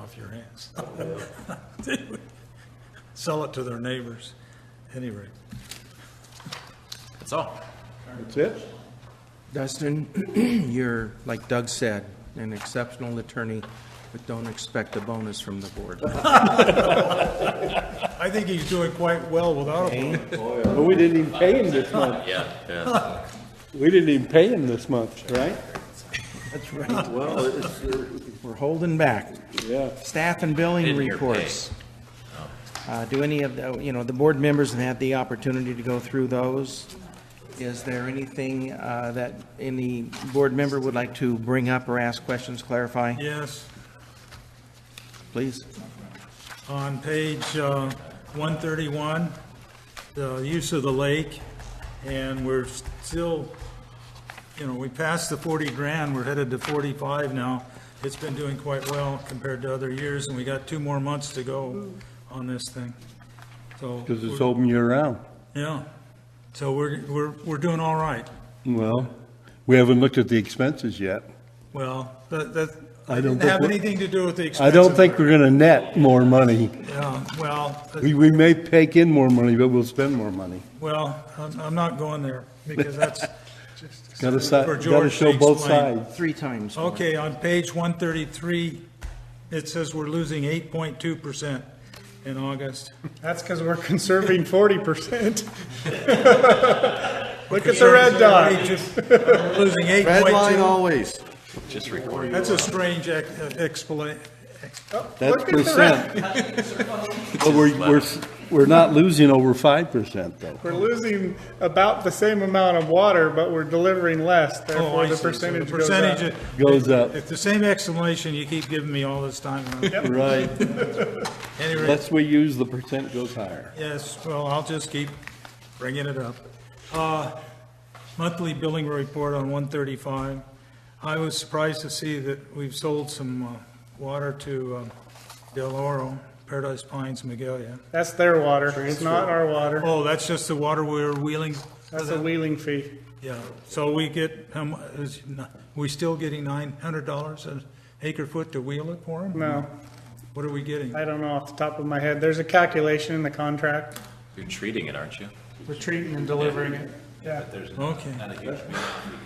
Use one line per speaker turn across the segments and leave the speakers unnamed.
off your hands. They would Sell it to their neighbors, any rate.
That's all.
That's it?
Dustin, you're, like Doug said, an exceptional attorney, but don't expect a bonus from the board.
I think he's doing quite well without a,
But we didn't even pay him this month. Yeah, yeah. We didn't even pay him this month, right?
That's right. Well, We're holding back.
Yeah.
Staff and billing
In your pay.
reports. Uh, Do any of, the you know, the board members have had the opportunity to go through those. Is there anything uh, that any board member would like to bring up or ask questions, clarify?
yes.
Please.
On page uh, 131, the use of the lake, and we're still, you know, we passed the 40 grand, we're headed to 45 now. It's been doing quite well compared to other years, and we got two more months to go on this thing. So,
Because it's open year-round.
yeah, so we're, we're, we're doing all right.
Well, we haven't looked at the expenses yet.
Well, that, that
I don't
didn't
think
have
we-
anything to do with the expense.
I don't
of
think
it.
we're gonna net more money.
Yeah, well, that-
We, we may take in more money, but we'll spend more money.
well, I'm, I'm not going there, because that's,
Gotta, si-
For George
gotta
to
show both
explain.
sides.
Three times. more.
Okay, on page 133, it says we're losing 8.2% in August.
That's because we're conserving forty percent. Look at the red dot.
We're Losing 8.2.
Red line always.
That's a strange explanation.
That's
Look at the red.
percent. But we're, we're, s- we're not losing over five percent though.
We're losing about the same amount of water, but we're delivering less,
oh,
therefore the percentage goes up.
Goes up,
It's the same explanation you keep giving me all this time.
right.
Anyway,
Less we use, the percent goes higher.
yes, well, I'll just keep bringing it up. Uh, Monthly billing report on 135. I was surprised to see that we've sold some uh, water to um, Del Oro, Paradise Pines, Magalia.
That's their water, it's not our water.
Oh, that's just the water we're wheeling?
That's a wheeling fee.
Yeah, so we get, how mu- is, ni- we still getting nine hundred dollars an acre foot to wheel it for them?
No,
What are we getting?
I don't know off the top of my head. There's a calculation in the contract.
You're treating it, aren't you?
We're treating and delivering it. Yeah,
Okay,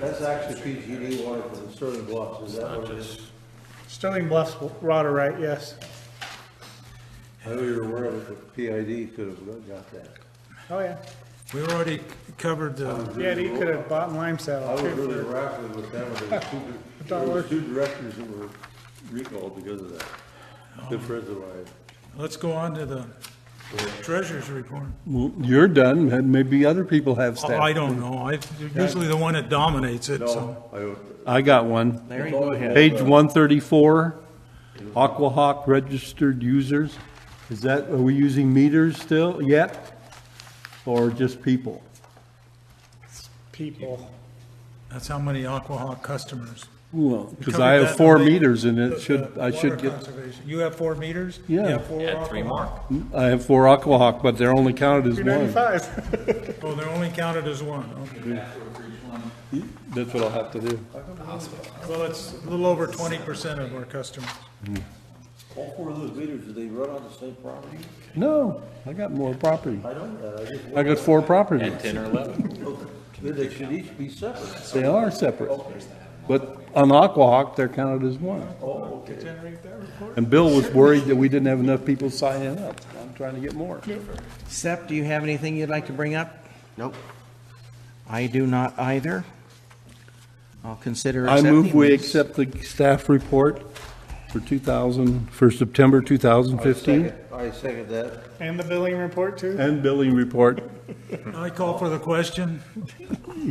That's actually PGD water for the Sterling Bluffs, is that what it is?
Sterling Bluffs water right, yes.
I know you're aware of it, but PID could have got that.
Oh, yeah.
we already covered the,
Yeah, you could have bought lime
I
salad
was
too.
really raffling with them, there was two, there were two directors that were recalled because of that. The reservoir.
let's go on to the treasurer's report.
Well, You're done, and maybe other people have
Oh, I
staff.
don't know, I, you're usually the one that dominates it, so.
No, I don't.
I got one.
Larry, go ahead.
Page one thirty-four, Aquahawk registered users. Is that, are we using meters still yet? Or just people?
People.
That's how many Aquahawk customers.
Well,
We
because
covered
I
that
have
in
four
the-
meters and
the-
it should,
the
I
water
should get,
conservation. You have four meters?
Yeah.
You have four
Add three
Aquahawk?
more.
I have four Aquahawk, but they're only counted as
Two
one.
ninety-five.
Oh, they're only counted as one, okay.
That's what I'll have to do.
Well, it's a little over twenty percent of our customers.
All four of those meters, do they run on the same property?
No, I got more property.
I don't, know, I just,
I got four properties.
Ten or eleven.
they should each be separate.
They are separate. But on Aquahawk, they're counted as one. And Bill was worried that we didn't have enough people signing up. I'm trying to get more.
Sep, do you have anything you'd like to bring up?
Nope.
I do not either. I'll consider
I
accepting
move we
these.
accept the staff report for 2000, for September 2015,
I second that.
And the billing report too?
and billing report.
I call for the question.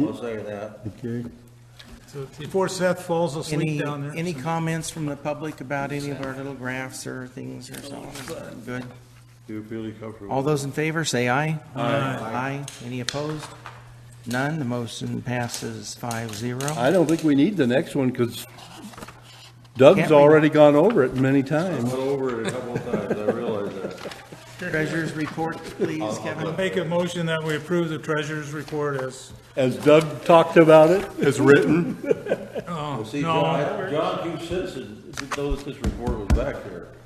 I'll second that.
Okay.
So Before Seth falls
Any,
asleep down there.
any comments from the public about any of our little graphs or things or something? Good.
You're feeling comfortable.
All those in favor, say aye. Aye.
Aye.
Aye. Any opposed? None. The motion passes five zero.
I don't think we need the next one because Doug's already gone over it many times.
Went over it a couple of times, I realize that.
Treasurer's report, please, Kevin.
Make a motion that we approve the treasurer's report as,
As Doug talked about it. As written.
Well, see,
No.
John, John Q. Simpson didn't know that this report was back there.